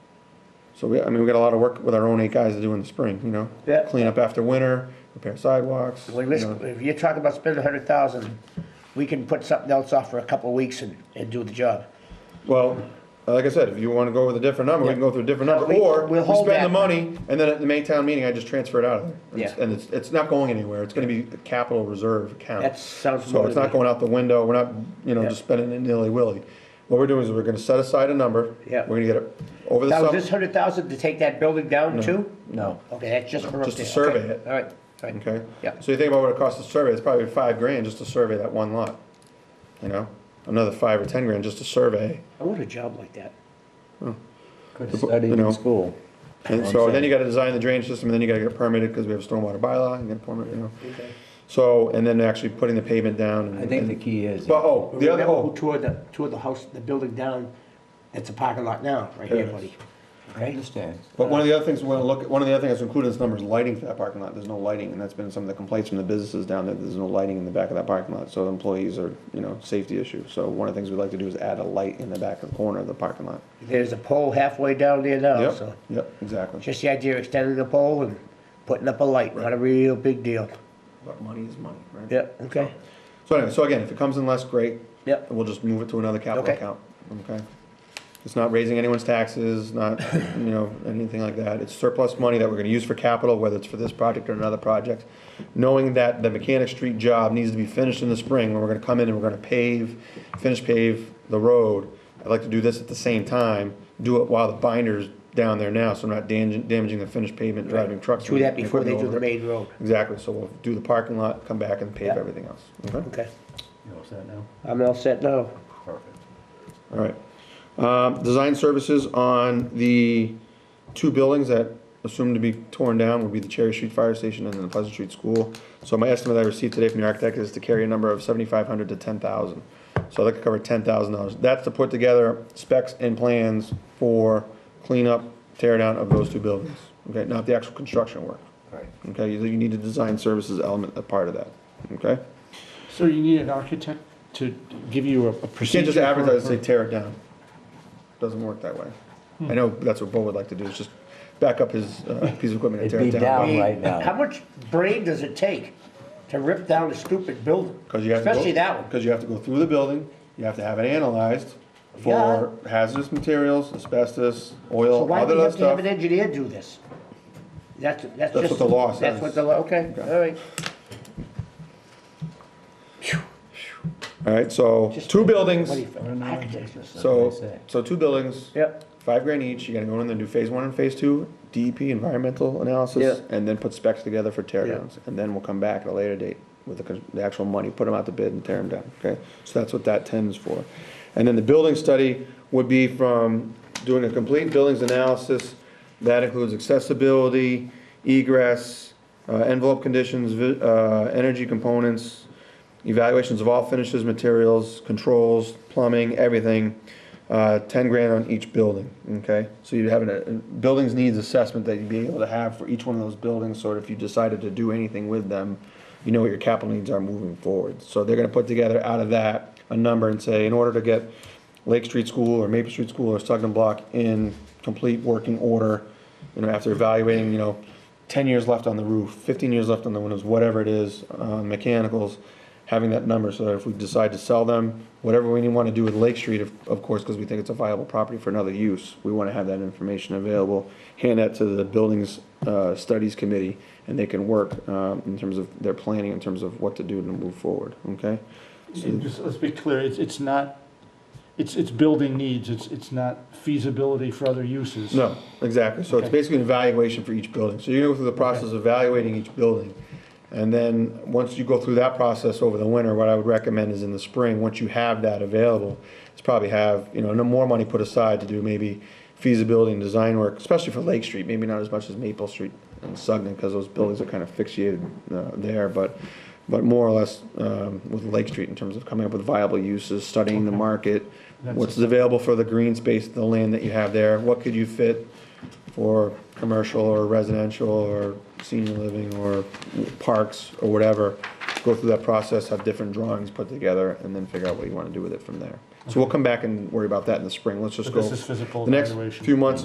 So we, I mean, we got a lot of work with our own eight guys to do in the spring, you know? Yeah. Clean up after winter, repair sidewalks, you Like, let's, know, if you're talking about spending a hundred thousand, we can put something else off for a couple of weeks and, and do the job. Well, uh, like I said, if you wanna go with a different number, we can go through a different Yeah. number, We- or we we'll hold spend the that. money, and then at the May town meeting, I just transfer it out of there. It's- Yeah. And it's, it's not going anywhere, it's gonna be a capital reserve account. That sounds So it's not motivating. going out the window, we're not, you know, Yeah. just spending it nilly-willy. What we're doing is we're gonna set aside a number. Yeah. We're gonna get it over the Now, is summer. this hundred thousand to take that building down too? No. Okay, that's just for up Just to there. survey Okay. it. All right, all right. Okay? Yeah. So you think about what it costs to survey, it's probably five grand just to survey that one lot, you know? Another five or ten grand just to survey. I want a job like that. Could study you know. in school. And so then you gotta design the drainage system, and then you gotta get it permitted, because we have a stormwater bylaw, and get permit, you know? So, and then actually putting the pavement down and. I think the key is, But, oh, the other, Remember who oh, tore the, tore the house, the building down, it's a parking lot now, right here, Yes. buddy. I understand. but one of the other things we wanna look, one of the other things included in this number is lighting for that parking lot, there's no lighting, and that's been some of the complaints from the businesses down there, there's no lighting in the back of that parking lot, so employees are, you know, safety issue, so one of the things we'd like to do is add a light in the back of the corner of the parking lot. There's a pole halfway down there now, Oh, so. Yep, yep, exactly. Just the idea of extending the pole and putting up a light, not a real big deal. But money is money, right? Yep, okay. So anyway, so again, if it comes in less, great. Yep. We'll just move it to another capital Okay. account, okay? It's not raising anyone's taxes, not, you know, anything like that. It's surplus money that we're gonna use for capital, whether it's for this project or another project. Knowing that the mechanic street job needs to be finished in the spring, when we're gonna come in and we're gonna pave, finish pave the road. I'd like to do this at the same time, do it while the binder's down there now, so I'm not damaging, damaging the finished pavement, driving trucks. Do and that before they do equipment over the it. main road. Exactly, so we'll do the parking lot, come back and pave Yeah. everything else, okay? Okay. You all set now? I'm all set now. Perfect. All right. Um, Design services on the two buildings that assumed to be torn down would be the Cherry Street Fire Station and then the Pleasant Street School. So my estimate I received today from the architect is to carry a number of seventy-five hundred to ten thousand. So that could cover ten thousand dollars. That's to put together specs and plans for cleanup, tear down of those two buildings. Okay, not the actual construction work. Right. Okay, you you need a design services element, a part of that, okay? So you need an architect to give you a a You procedure? can't just for- advertise and say tear it down. Doesn't work that way. Hmm. I know that's what Bo would like to do, is just back up his uh, piece of equipment and tear It'd it be down down. right How now. much brain does it take to rip down a stupid building? Because you have to go. Especially that one. Because you have to go through the building, you have to have it analyzed for hazardous materials, asbestos, So oil, why do other you that have to have stuff. an engineer do this? That's, that's just. what the law says. That's what the law, okay, Okay. all right. All right, so two buildings, What do you think? know. Architects are so- so, so two buildings, Yep, five grand each, you gotta go in and do phase one and phase two, DEP environmental analysis, Yeah. and then put specs together for tear Yeah. downs. And then we'll come back at a later date with the, con- the actual money, put them out to bid and tear them down, okay? So that's what that tends for. And then the building study would be from doing a complete buildings analysis, that includes accessibility, egress, uh, envelope conditions, vi- uh, energy components, evaluations of all finishes, materials, controls, plumbing, everything, uh, ten grand on each building, okay? So you'd have a, a buildings needs assessment that you'd be able to have for each one of those buildings, so if you decided to do anything with them, you know what your capital needs are moving forward. So they're gonna put together out of that a number and say, in order to get Lake Street School or Maple Street School or Sugden Block in complete working order, you know, after evaluating, you know, ten years left on the roof, fifteen years left on the windows, whatever it is, uh, mechanicals, having that number, so that if we decide to sell them, whatever we want to do with Lake Street, of, of course, because we think it's a viable property for another use, we want to have that information available, hand that to the Buildings, uh, Studies Committee, and they can work, um, in terms of their planning, in terms of what to do to move forward, okay? And just, let's be clear, it's, it's not, it's, it's building needs, it's, it's not feasibility for other uses. No, exactly, so it's Okay. basically an evaluation for each building, so you're gonna go through the process of evaluating each building. And then, once you go through that process over the winter, what I would recommend is in the spring, once you have that available, is probably have, you know, no more money put aside to do maybe feasibility and design work, especially for Lake Street, maybe not as much as Maple Street and Sugden, because those buildings are kind of fixated, uh, there, but, but more or less, um, with Lake Street in terms of coming up with viable uses, studying the market, That's- what's available for the green space, the land that you have there, what could you fit for commercial or residential or senior living or parks or whatever. Go through that process, have different drawings put together, and then figure out what you wanna do with it from there. So we'll come back and worry about that in the spring, let's just But go. this is physical The next evaluation. few months